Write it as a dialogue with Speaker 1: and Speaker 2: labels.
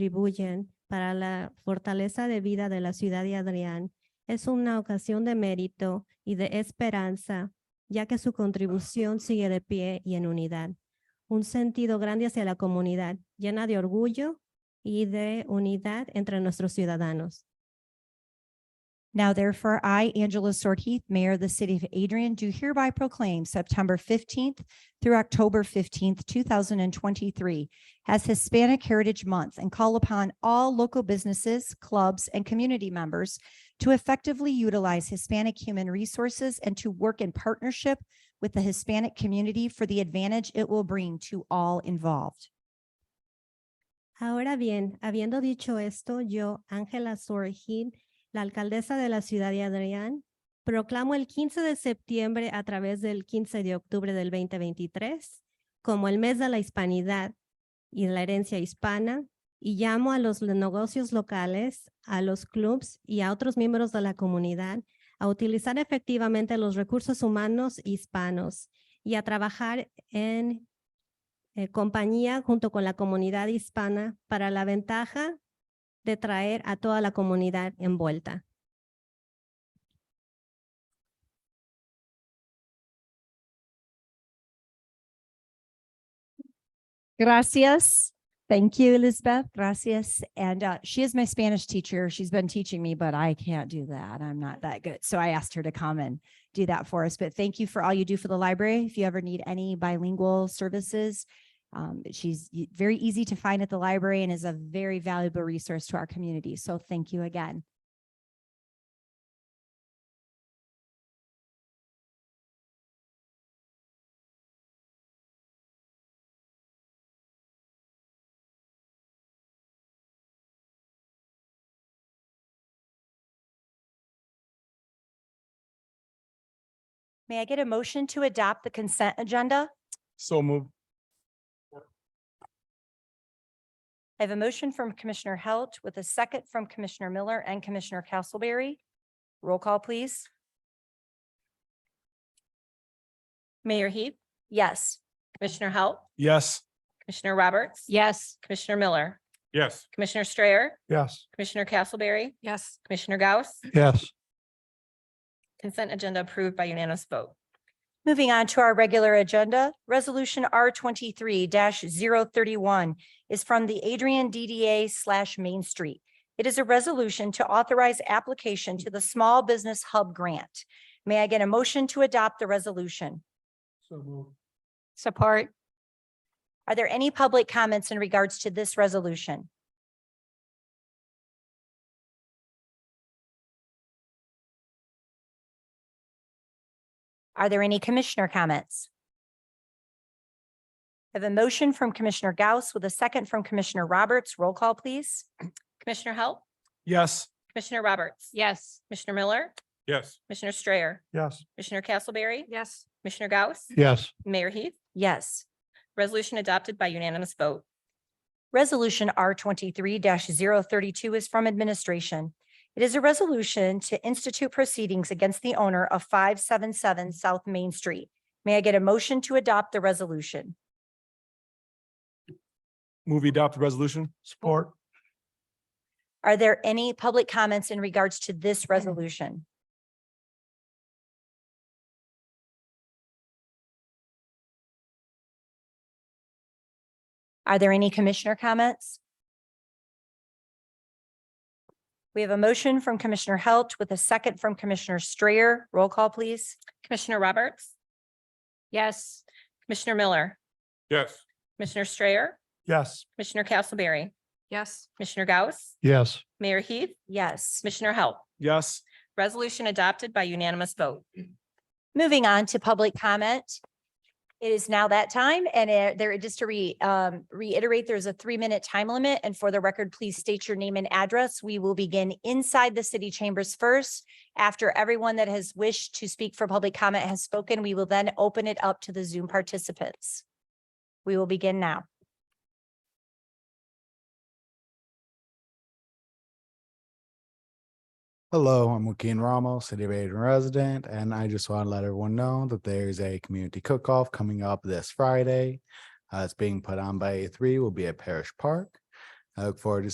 Speaker 1: contribuyen para la fortaleza de vida de la ciudad de Adrián es una ocasión de mérito y de esperanza, ya que su contribución sigue de pie y en unidad. Un sentido grande hacia la comunidad, llena de orgullo y de unidad entre nuestros ciudadanos.
Speaker 2: Now therefore, I, Angela Sword Heath, Mayor of the City of Adrian, do hereby proclaim September fifteenth through October fifteenth, two thousand and twenty-three as Hispanic Heritage Month and call upon all local businesses, clubs, and community members to effectively utilize Hispanic human resources and to work in partnership with the Hispanic community for the advantage it will bring to all involved.
Speaker 1: Ahora bien, habiendo dicho esto, yo, Ángela Sorgin, la alcaldesa de la ciudad de Adrián, proclamo el 15 de septiembre a través del 15 de octubre del 2023 como el mes de la hispanidad y de la herencia hispana y llamo a los le- negocios locales, a los clubs y a otros miembros de la comunidad a utilizar efectivamente los recursos humanos hispanos y a trabajar en eh, compañía junto con la comunidad hispana para la ventaja de traer a toda la comunidad envuelta.
Speaker 2: Gracias. Thank you, Elizabeth. Gracias. And uh, she is my Spanish teacher. She's been teaching me, but I can't do that. I'm not that good. So I asked her to come and do that for us. But thank you for all you do for the library. If you ever need any bilingual services, um, she's y- very easy to find at the library and is a very valuable resource to our community. So thank you again. May I get a motion to adopt the consent agenda?
Speaker 3: So moved.
Speaker 2: I have a motion from Commissioner Halt with a second from Commissioner Miller and Commissioner Castleberry. Roll call, please.
Speaker 4: Mayor Heath,
Speaker 2: Yes.
Speaker 4: Commissioner Halt,
Speaker 3: Yes.
Speaker 4: Commissioner Roberts.
Speaker 2: Yes.
Speaker 4: Commissioner Miller,
Speaker 3: Yes.
Speaker 4: Commissioner Strayer,
Speaker 3: Yes.
Speaker 4: Commissioner Castleberry,
Speaker 5: Yes.
Speaker 4: Commissioner Gauss.
Speaker 3: Yes.
Speaker 4: Consent agenda approved by unanimous vote.
Speaker 2: Moving on to our regular agenda, Resolution R twenty-three 31 is from the Adrian DDA slash Main Street. It is a resolution to authorize application to the Small Business Hub Grant. May I get a motion to adopt the resolution?
Speaker 3: So moved.
Speaker 5: Support.
Speaker 2: Are there any public comments in regards to this resolution? Are there any commissioner comments? I have a motion from Commissioner Gauss with a second from Commissioner Roberts. Roll call, please.
Speaker 4: Commissioner Halt,
Speaker 3: Yes.
Speaker 4: Commissioner Roberts.
Speaker 5: Yes.
Speaker 4: Commissioner Miller,
Speaker 3: Yes.
Speaker 4: Commissioner Strayer,
Speaker 3: Yes.
Speaker 4: Commissioner Castleberry,
Speaker 5: Yes.
Speaker 4: Commissioner Gauss,
Speaker 3: Yes.
Speaker 4: Mayor Heath,
Speaker 2: Yes.
Speaker 4: resolution adopted by unanimous vote.
Speaker 2: Resolution R twenty-three 32 is from administration. It is a resolution to institute proceedings against the owner of five seven seven South Main Street. May I get a motion to adopt the resolution?
Speaker 3: Movie adopt the resolution. Support.
Speaker 2: Are there any public comments in regards to this resolution? Are there any commissioner comments? We have a motion from Commissioner Halt with a second from Commissioner Strayer. Roll call, please.
Speaker 4: Commissioner Roberts,
Speaker 5: Yes.
Speaker 4: Commissioner Miller,
Speaker 3: Yes.
Speaker 4: Commissioner Strayer,
Speaker 3: Yes.
Speaker 4: Commissioner Castleberry,
Speaker 5: Yes.
Speaker 4: Commissioner Gauss,
Speaker 3: Yes.
Speaker 4: Mayor Heath,
Speaker 2: Yes.
Speaker 4: Commissioner Halt,
Speaker 3: Yes.
Speaker 4: resolution adopted by unanimous vote.
Speaker 2: Moving on to public comment. It is now that time and uh, there, just to re, um, reiterate, there's a three-minute time limit. And for the record, please state your name and address. We will begin inside the city chambers first. After everyone that has wished to speak for public comment has spoken, we will then open it up to the Zoom participants. We will begin now.
Speaker 6: Hello, I'm Joaquin Ramos, City of Aiden resident, and I just want to let everyone know that there's a community cook-off coming up this Friday. Uh, it's being put on by A3, will be at Parish Park. I look forward to